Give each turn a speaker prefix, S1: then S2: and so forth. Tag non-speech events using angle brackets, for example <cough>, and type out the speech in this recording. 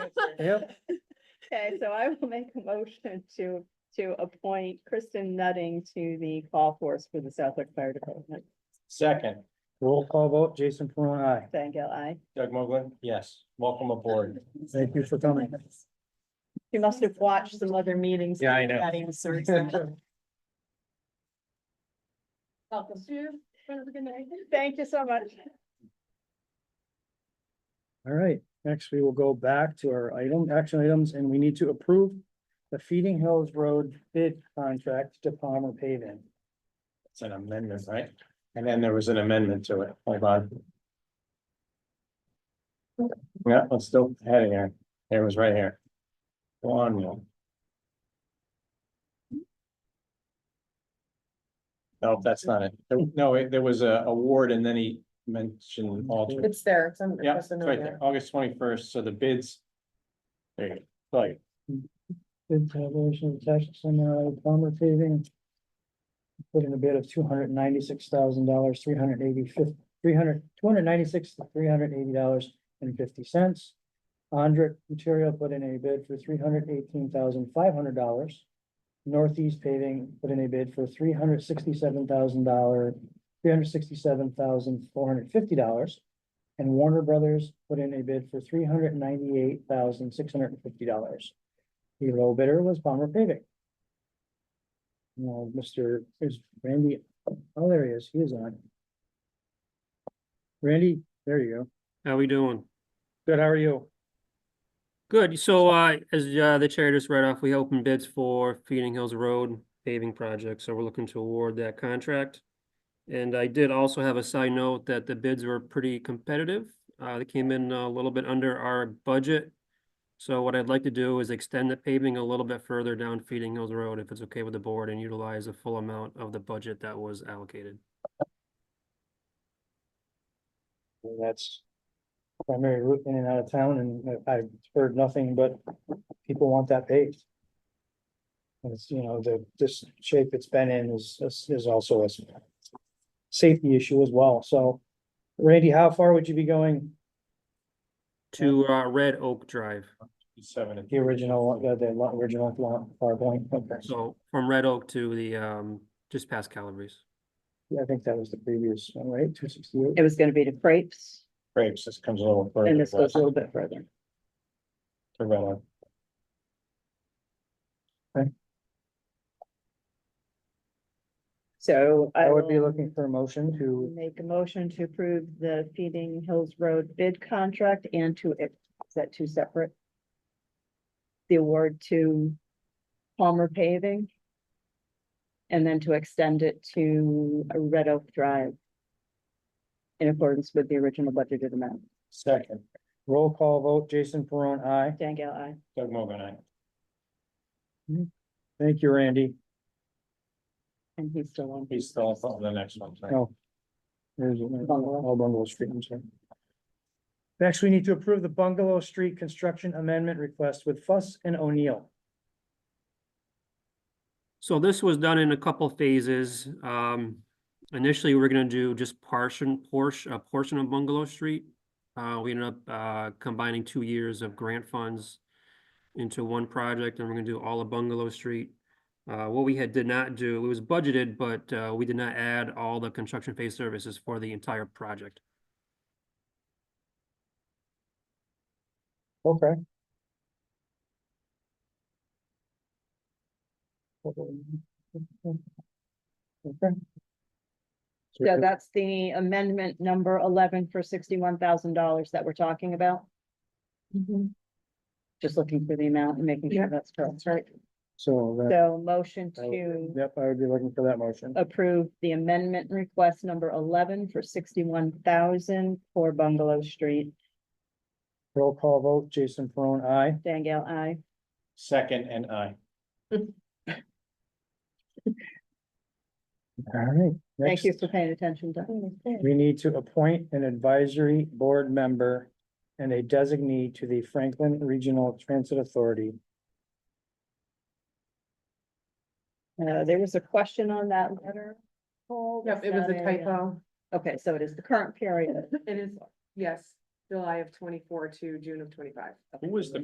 S1: Yep.
S2: Okay, so I will make a motion to, to appoint Kristen Nutting to the call force for the Southwick Fire Department.
S1: Second,
S3: Roll call vote, Jason Perron, aye.
S2: Thank you, I.
S1: Doug Mogul, yes, welcome aboard.
S3: Thank you for coming.
S2: You must have watched some other meetings.
S1: Yeah, I know.
S2: That
S1: <laughs>
S2: answers that. Thank you so much.
S3: All right, next we will go back to our item, action items, and we need to approve the Feeding Hills Road bid contract to Palmer paving.
S1: It's an amendment, right? And then there was an amendment to it, hold on. Yeah, it's still heading here, it was right here. Go on, Neil. No, that's not it, no, it- there was a award and then he mentioned alternate.
S4: It's there. It's on.
S1: Yeah,
S4: it's
S1: it's
S4: on
S1: right there,
S4: there.
S1: August twenty-first, so the bids. There you go, like,
S3: Bid tabulation attached to the Palmer paving. Put in a bid of two hundred ninety-six thousand dollars, three hundred eighty fifth, three hundred, two hundred ninety-six, three hundred eighty dollars and fifty cents. Andrick Material put in a bid for three hundred eighteen thousand, five hundred dollars. Northeast Paving put in a bid for three hundred sixty-seven thousand dollar, three hundred sixty-seven thousand, four hundred fifty dollars. And Warner Brothers put in a bid for three hundred ninety-eight thousand, six hundred and fifty dollars. The low bidder was Palmer Paving. Now, Mr. is Randy, oh, there he is, he is on. Randy, there you go.
S5: How we doing?
S3: Good, how are you?
S5: Good. So, uh, as, uh, the chair just read off, we opened bids for Feeding Hills Road paving project, so we're looking to award that contract. And I did also have a side note that the bids were pretty competitive. Uh, they came in a little bit under our budget. So what I'd like to do is extend the paving a little bit further down Feeding Hills Road, if it's okay with the board, and utilize the full amount of the budget that was allocated.
S3: Well, That's primary route in and out of town, and I- I've heard nothing but people want that paved. And It's, you know, the, this shape it's been in is, is is also a s- safety issue as well, so. Randy, how far would you be going,
S5: To, uh, Red Oak Drive.
S1: seven. and-
S3: the original, uh, the lo- original lo- PowerPoint? Okay.
S5: So from Red Oak to the, um, just past Calabrese.
S3: Yeah, I think that was the previous one, right? Two sixty-eight.
S2: It was gonna be the crepes
S1: Grapes, this comes a little further.
S2: and this goes a
S1: to
S2: little bit further.
S1: Red Oak.
S2: So
S3: I
S2: I
S3: would be
S2: will
S3: looking for a motion to,
S2: make a motion to approve the Feeding Hills Road bid contract and to, is that two separate? The award to Palmer Paving. And then to extend it to Red Oak Drive. In accordance with the original budgeted amount.
S1: Second,
S3: roll call vote, Jason Peron, aye.
S2: Dangle, I.
S1: Doug Mogul, aye.
S3: Thank you, Randy.
S2: And he's still on.
S1: He's still on the next one. right?
S3: No. There's
S2: Bungalow.
S3: all bungalow street, I'm sorry. Next, we need to approve the bungalow street construction amendment request with Fuss and O'Neill.
S5: So this was done in a couple phases. Um, initially, we we're gonna do just portion, portion, a portion of Bungalow Street. Uh, we ended up, uh, combining two years of grant funds into one project, and we're gonna do all of Bungalow Street. Uh, what we had did not do, it was budgeted, but, uh, we did not add all the construction phase services for the entire project.
S3: Okay. Okay.
S2: So that's the amendment number eleven for sixty-one thousand dollars that we're talking about. Just looking for the amount and making sure
S4: Mm-hmm. Yeah.
S2: that's correct, right?
S3: So that,
S2: So motion
S3: I would-
S2: to
S3: yep, I would be looking for that motion.
S2: approve the amendment request number eleven for sixty-one thousand for Bungalow Street.
S3: Roll call vote, Jason Peron, aye.
S2: Dangle, I.
S1: Second and I.
S3: All right.
S2: Thank
S3: next.
S2: you for paying attention to.
S3: We need to appoint an advisory board member and a designee to the Franklin Regional Transit Authority.
S2: Uh, there was a question on that letter. Paul,
S4: Yep, it was
S2: that uh,
S4: a typo.
S2: Okay, so it is the current period.
S4: It is, yes, July of twenty-four to June of twenty-five.
S1: Who was the